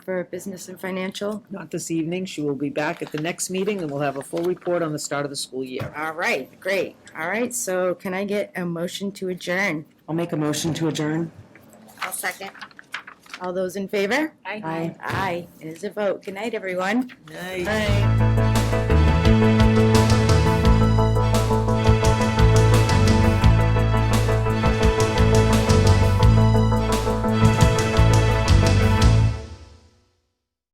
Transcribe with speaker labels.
Speaker 1: for business and financial.
Speaker 2: Not this evening. She will be back at the next meeting, and we'll have a full report on the start of the school year.
Speaker 1: All right, great. All right, so can I get a motion to adjourn?
Speaker 3: I'll make a motion to adjourn.
Speaker 4: I'll second.
Speaker 1: All those in favor?
Speaker 3: Aye.
Speaker 1: Aye, it is a vote. Good night, everyone.
Speaker 2: Nice.
Speaker 1: Aye.